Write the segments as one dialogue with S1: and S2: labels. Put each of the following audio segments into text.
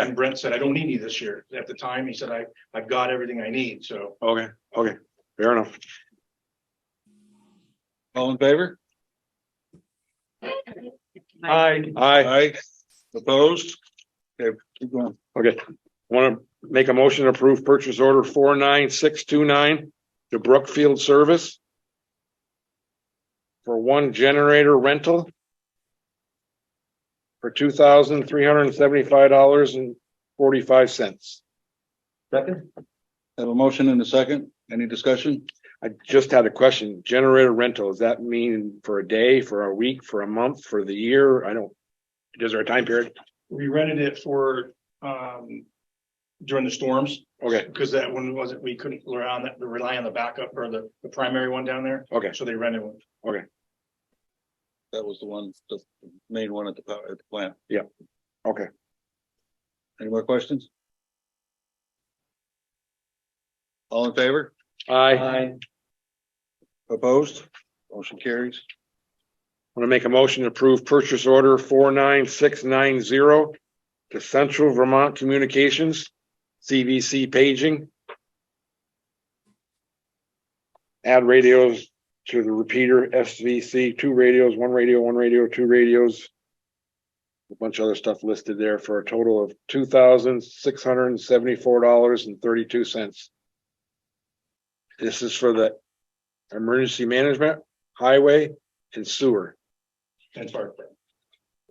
S1: And Brent said, I don't need any this year. At the time, he said, I, I've got everything I need, so.
S2: Okay, okay, fair enough. All in favor?
S1: I,
S2: Aye. Opposed? Okay, keep going. Okay, want to make a motion to approve purchase order four nine six two nine to Brookfield Service for one generator rental for two thousand three hundred and seventy-five dollars and forty-five cents.
S1: second,
S3: Have a motion and a second. Any discussion?
S2: I just had a question. Generator rental, does that mean for a day, for a week, for a month, for the year? I don't. Is there a time period?
S1: we rented it for, um, during the storms,
S2: Okay,
S1: because that one wasn't, we couldn't rely on that, rely on the backup or the, the primary one down there,
S2: okay,
S1: so they rented one.
S3: That was the one, the main one at the power, at the plant.
S2: Yeah. Okay.
S3: Any more questions? All in favor?
S2: I
S3: Opposed? Motion carries.
S2: want to make a motion to approve purchase order four nine six nine zero to Central Vermont Communications, CVC paging. Add radios to the repeater SVC, two radios, one radio, one radio, two radios. A bunch of other stuff listed there for a total of two thousand six hundred and seventy-four dollars and thirty-two cents. This is for the emergency management, highway and sewer
S1: And fire.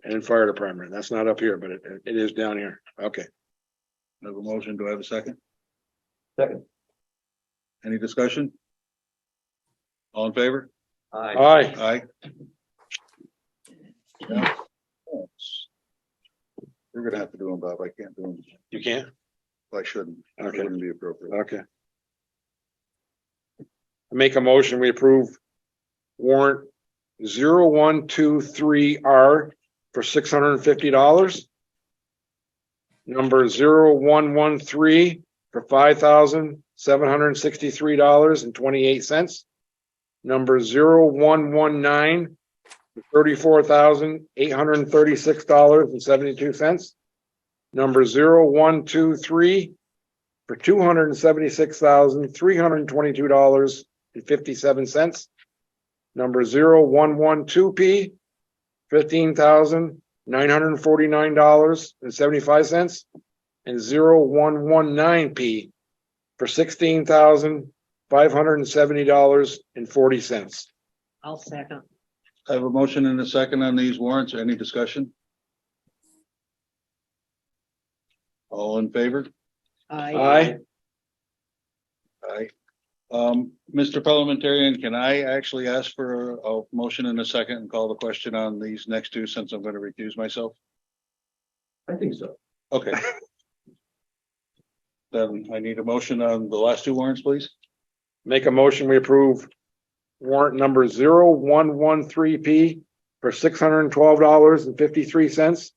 S2: and fire department. That's not up here, but it, it is down here. Okay.
S3: Have a motion. Do I have a second?
S1: Second.
S3: Any discussion? All in favor?
S2: All right.
S3: Aye. You're gonna have to do them, Bob. I can't do them.
S2: You can't?
S3: I shouldn't. It
S2: Okay,
S3: wouldn't be appropriate.
S2: okay. Make a motion, we approve warrant zero one two three R for six hundred and fifty dollars. Number zero one one three for five thousand seven hundred and sixty-three dollars and twenty-eight cents. Number zero one one nine for thirty-four thousand eight hundred and thirty-six dollars and seventy-two cents. Number zero one two three for two hundred and seventy-six thousand, three hundred and twenty-two dollars and fifty-seven cents. Number zero one one two P, fifteen thousand, nine hundred and forty-nine dollars and seventy-five cents. And zero one one nine P for sixteen thousand, five hundred and seventy dollars and forty cents.
S4: I'll second.
S3: I have a motion and a second on these warrants. Any discussion? All in favor?
S2: Aye.
S3: Aye. Um, Mr. Parliamentarian, can I actually ask for a a motion and a second and call the question on these next two since I'm gonna recuse myself?
S1: I think so.
S3: Okay. Then I need a motion on the last two warrants, please.
S2: Make a motion, we approve warrant number zero one one three P for six hundred and twelve dollars and fifty-three cents.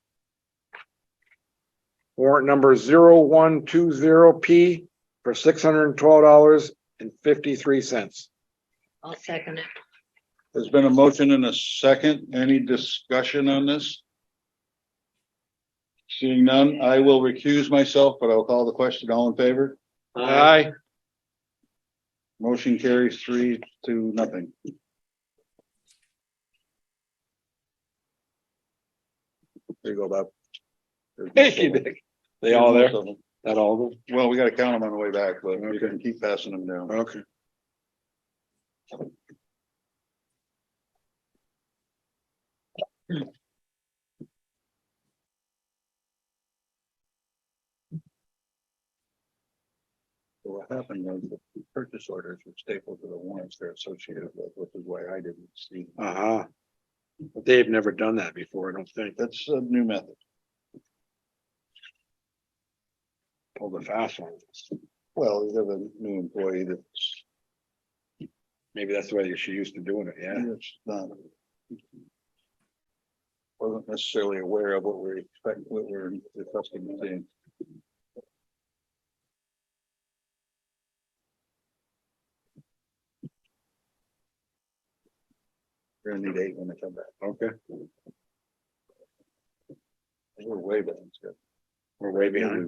S2: Warrant number zero one two zero P for six hundred and twelve dollars and fifty-three cents.
S4: I'll second it.
S3: There's been a motion and a second. Any discussion on this? Seeing none, I will recuse myself, but I'll call the question. All in favor?
S2: Aye.
S3: Motion carries three to nothing. There you go, Bob.
S2: Thank you, Dick. They all there? That all of them?
S3: Well, we gotta count them on the way back, but we
S2: Okay.
S3: can keep passing them down.
S2: Okay.
S3: So What happened was the purchase orders were stapled to the warrants they're associated with, which is why I didn't see.
S2: Uh-huh. But They've never done that before, I don't think.
S3: That's a new method.
S2: All the fast ones.
S3: Well, you have a new employee that's
S2: Maybe that's the way she used to doing it, yeah.
S3: It's not. um, Wasn't necessarily aware of what we're expecting, what we're requesting to see. We're gonna need eight when they come back.
S2: Okay.
S3: We're way back. We're way behind.